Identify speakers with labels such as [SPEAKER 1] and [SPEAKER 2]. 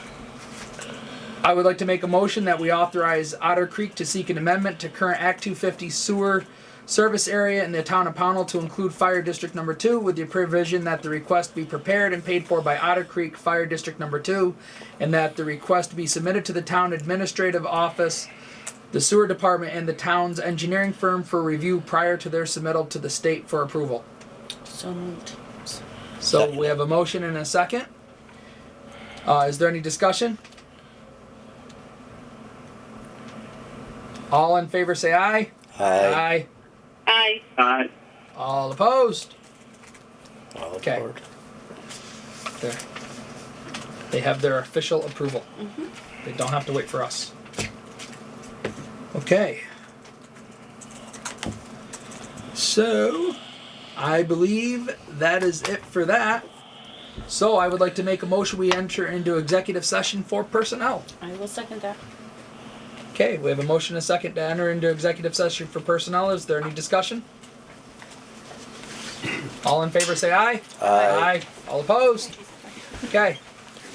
[SPEAKER 1] I would like to make a motion that we authorize Otter Creek to seek an amendment to current Act two fifty sewer service area in the town of Pownell to include Fire District Number Two with the provision that the request be prepared and paid for by Otter Creek Fire District Number Two and that the request be submitted to the town administrative office, the sewer department and the town's engineering firm for review prior to their submittal to the state for approval.
[SPEAKER 2] So moved.
[SPEAKER 1] So we have a motion and a second. Uh, is there any discussion? All in favor say aye.
[SPEAKER 3] Aye.
[SPEAKER 2] Aye.
[SPEAKER 4] Aye.
[SPEAKER 1] All opposed?
[SPEAKER 3] All
[SPEAKER 1] Okay.
[SPEAKER 3] aboard.
[SPEAKER 1] There. They have their official approval. They don't have to wait for us. Okay. So, I believe that is it for that. So, I would like to make a motion we enter into executive session for personnel.
[SPEAKER 2] I will second that.
[SPEAKER 1] Okay, we have a motion and a second to enter into executive session for personnel. Is there any discussion? All in favor say aye.
[SPEAKER 3] Aye.
[SPEAKER 1] All opposed? Okay,